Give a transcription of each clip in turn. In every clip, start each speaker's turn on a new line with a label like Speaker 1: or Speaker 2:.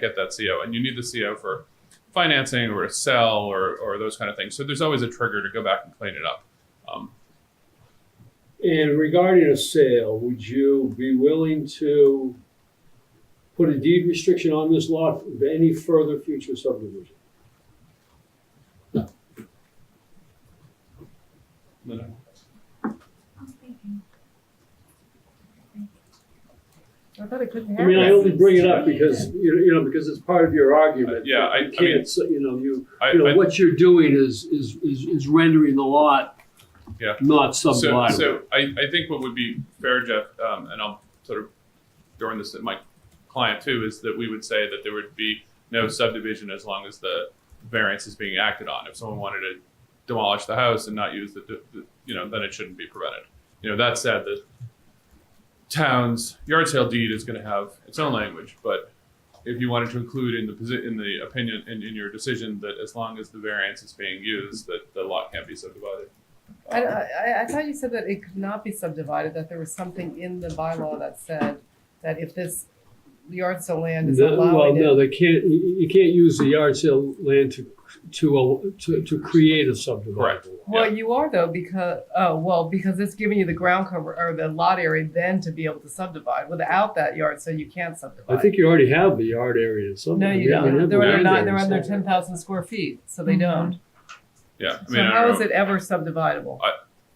Speaker 1: get that CO, and you need the CO for financing or to sell or, or those kind of things. So there's always a trigger to go back and clean it up. Um,
Speaker 2: And regarding a sale, would you be willing to put a deed restriction on this lot for any further future subdivision?
Speaker 3: I thought it couldn't
Speaker 2: I
Speaker 3: happen.
Speaker 2: mean, I only bring it up because, you know, you know, because it's part of your argument.
Speaker 1: Yeah, I- I
Speaker 2: You can't, s- you know, you,
Speaker 1: I,
Speaker 2: you know,
Speaker 1: I,
Speaker 2: what you're doing is, is, is is rendering the lot
Speaker 1: Yeah.
Speaker 2: not
Speaker 1: so,
Speaker 2: subdivided.
Speaker 1: so I, I think what would be fair, Jeff, um, and I'll sort of during this at my client too, is that we would say that there would be no subdivision as long as the variance is being acted on. If someone wanted to demolish the house and not use the, the you know, then it shouldn't be prevented. You know, that said, the town's yard sale deed is going to have its own language, but if you wanted to include in the posi- in the opinion in, in your decision that as long as the variance is being used, that the lot can't be subdivided.
Speaker 3: I, I, I thought you said that it could not be subdivided, that there was something in the bylaw that said that if this yard sale land is
Speaker 2: No, Well,
Speaker 3: allowing
Speaker 2: no,
Speaker 3: it.
Speaker 2: they can't, you, you can't use the yard sale land to, to, to, to create a
Speaker 1: Correct.
Speaker 2: subdivision.
Speaker 3: Well, you are though, because, oh, well, because it's giving you the ground cover or the lot area then to be able to subdivide. Without that yard, so you can't
Speaker 2: I
Speaker 3: subdivide.
Speaker 2: think you already have the yard area
Speaker 3: No,
Speaker 2: somewhere.
Speaker 3: you
Speaker 2: Yeah, you
Speaker 3: don't.
Speaker 2: have
Speaker 3: They're
Speaker 2: the
Speaker 3: under
Speaker 2: land
Speaker 3: nine,
Speaker 2: area
Speaker 3: they're under
Speaker 2: somewhere.
Speaker 3: ten thousand square feet, so they
Speaker 4: Mhm.
Speaker 3: don't.
Speaker 1: Yeah, Mm-hmm. I
Speaker 3: So
Speaker 1: mean, I don't
Speaker 3: how
Speaker 1: know.
Speaker 3: is it ever subdividable?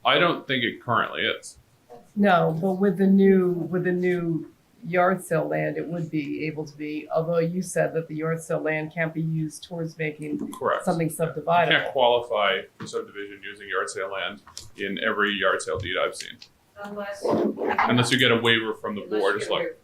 Speaker 1: I don't think it currently is.
Speaker 3: No, but with the new, with the new yard sale land, it would be able to be, although you said that the yard sale land can't be used towards making
Speaker 1: Correct.
Speaker 3: something
Speaker 1: You can't
Speaker 3: subdividable.
Speaker 1: qualify for subdivision using yard sale land in every yard sale deed I've seen,
Speaker 4: Unless.
Speaker 1: unless you get a waiver from the
Speaker 4: Unless
Speaker 1: board,
Speaker 4: you're-
Speaker 1: it's like,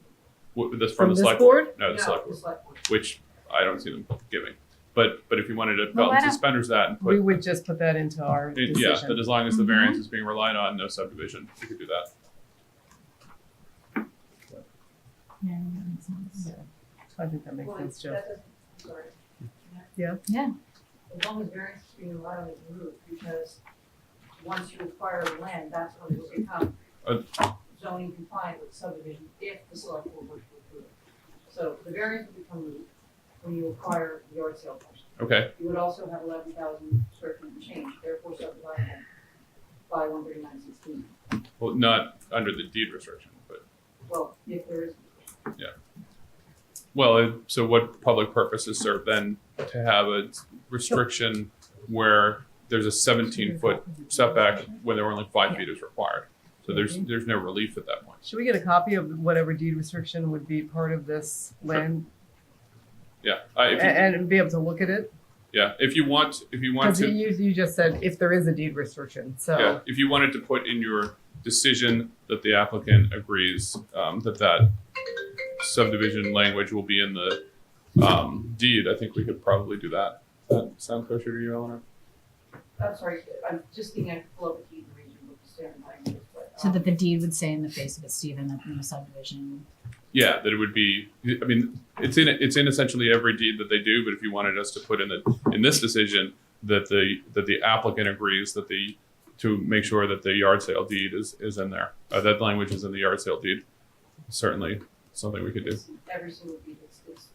Speaker 1: w- this
Speaker 3: From
Speaker 1: from the
Speaker 3: this
Speaker 1: select
Speaker 3: board?
Speaker 1: board. No, the select
Speaker 4: the
Speaker 1: board,
Speaker 4: select board.
Speaker 1: which I don't see them giving. But, but if you wanted to belt
Speaker 5: why
Speaker 1: and
Speaker 5: don't-
Speaker 1: suspenders that and put,
Speaker 3: We would just put that into our
Speaker 1: it- yeah,
Speaker 3: decision. Mm-hmm.
Speaker 1: that as long as the
Speaker 5: Mhm.
Speaker 1: variance is being relied on, no subdivision, you could do that.
Speaker 5: Yeah, that makes sense.
Speaker 3: I think that makes
Speaker 4: Well,
Speaker 3: sense, Joe.
Speaker 4: that doesn't- sorry.
Speaker 3: Yeah.
Speaker 5: Yeah.
Speaker 4: As long as variance is being allowed on the roof, because once you acquire the land, that's when it will become
Speaker 1: Uh,
Speaker 4: zoning compliant with subdivision if the select board were to approve it. So the variance will become moot when you acquire the yard sale parcel.
Speaker 1: Okay,
Speaker 4: You would also have eleven thousand square feet of change, therefore subdivided by one thirty-nine sixteen.
Speaker 1: well, not under the deed restriction, but,
Speaker 4: Well, if there is,
Speaker 1: well, it- so what public purpose is served then to have a restriction where there's a seventeen foot setback when there were only five feet is required. So there's, there's no relief at that point.
Speaker 3: Should we get a copy of whatever deed restriction would be part of this land
Speaker 1: Yeah, I,
Speaker 3: and,
Speaker 1: Uh, if you,
Speaker 3: and be able to look at it?
Speaker 1: yeah, if you want, if you want
Speaker 3: Because you,
Speaker 1: to,
Speaker 3: you just said if there is a deed restriction,
Speaker 1: yeah,
Speaker 3: so
Speaker 1: if you wanted to put in your decision that the applicant agrees, um, that that subdivision language will be in the, um, deed, I think we could probably do that. That sound kosher to you, Eleanor?
Speaker 4: I'm sorry, I'm just thinking I pull up a deed region with the standard language, but.
Speaker 5: So
Speaker 4: um,
Speaker 5: that the deed would say in the face of it, Stephen, that no subdivision.
Speaker 1: Yeah, that it would be, I mean, it's in, it's in essentially every deed that they do, but if you wanted us to put in the, in this decision, that the, that the applicant agrees that the, to make sure that the yard sale deed is, is in there, uh, that language is in the yard sale deed. Certainly something we could do.
Speaker 4: It's um, Every single deed is, is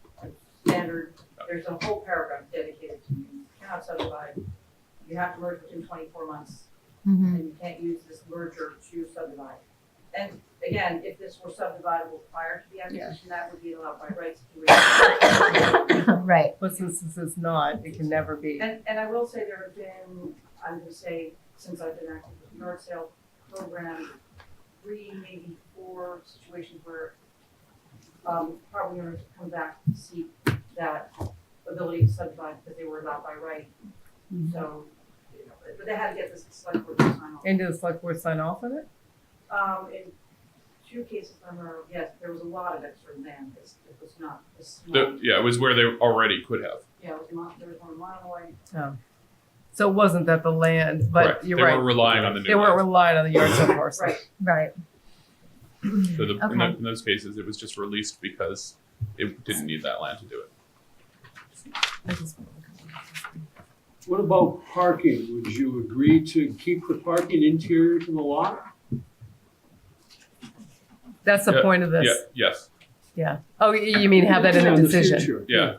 Speaker 4: standard, there's a whole paragraph dedicated to you cannot subdivide, you have to merge within twenty-four months,
Speaker 5: Hmm.
Speaker 4: and you can't use this merger to subdivide. And again, if this were subdividable prior to the acquisition, that would be allowed by rights to.
Speaker 5: Right.
Speaker 3: but since this is not, it can never be.
Speaker 4: And, and I will say there have been, I'm gonna say, since I've been active with the yard sale program, three, maybe four situations where, um, property owners have come back to seek that ability to subdivide because they were allowed by right. So, you know, but they had to get this select board to sign off.
Speaker 3: And did the select board sign off on it?
Speaker 4: Um, in two cases, I remember, yes, there was a lot of extra land, it's, it was not, this
Speaker 1: The- yeah, it was where they already could have.
Speaker 4: yeah, it was not, there was one in Monomoy,
Speaker 3: So it wasn't that the land, but
Speaker 1: Correct.
Speaker 3: you're
Speaker 1: They
Speaker 3: right.
Speaker 1: were relying on the
Speaker 3: They
Speaker 1: new
Speaker 3: weren't
Speaker 1: land.
Speaker 3: relying on the yard sale parcel.
Speaker 4: right,
Speaker 5: Right.
Speaker 1: So the- in
Speaker 5: Okay.
Speaker 1: tho- in those cases, it was just released because it didn't need that land to do it.
Speaker 2: What about parking? Would you agree to keep the parking interior to the lot?
Speaker 3: That's the point of this.
Speaker 1: Yeah, yes,
Speaker 3: Oh, y- you mean have that in
Speaker 2: Yeah,
Speaker 3: a
Speaker 2: the
Speaker 3: decision?
Speaker 2: future.
Speaker 1: Yeah.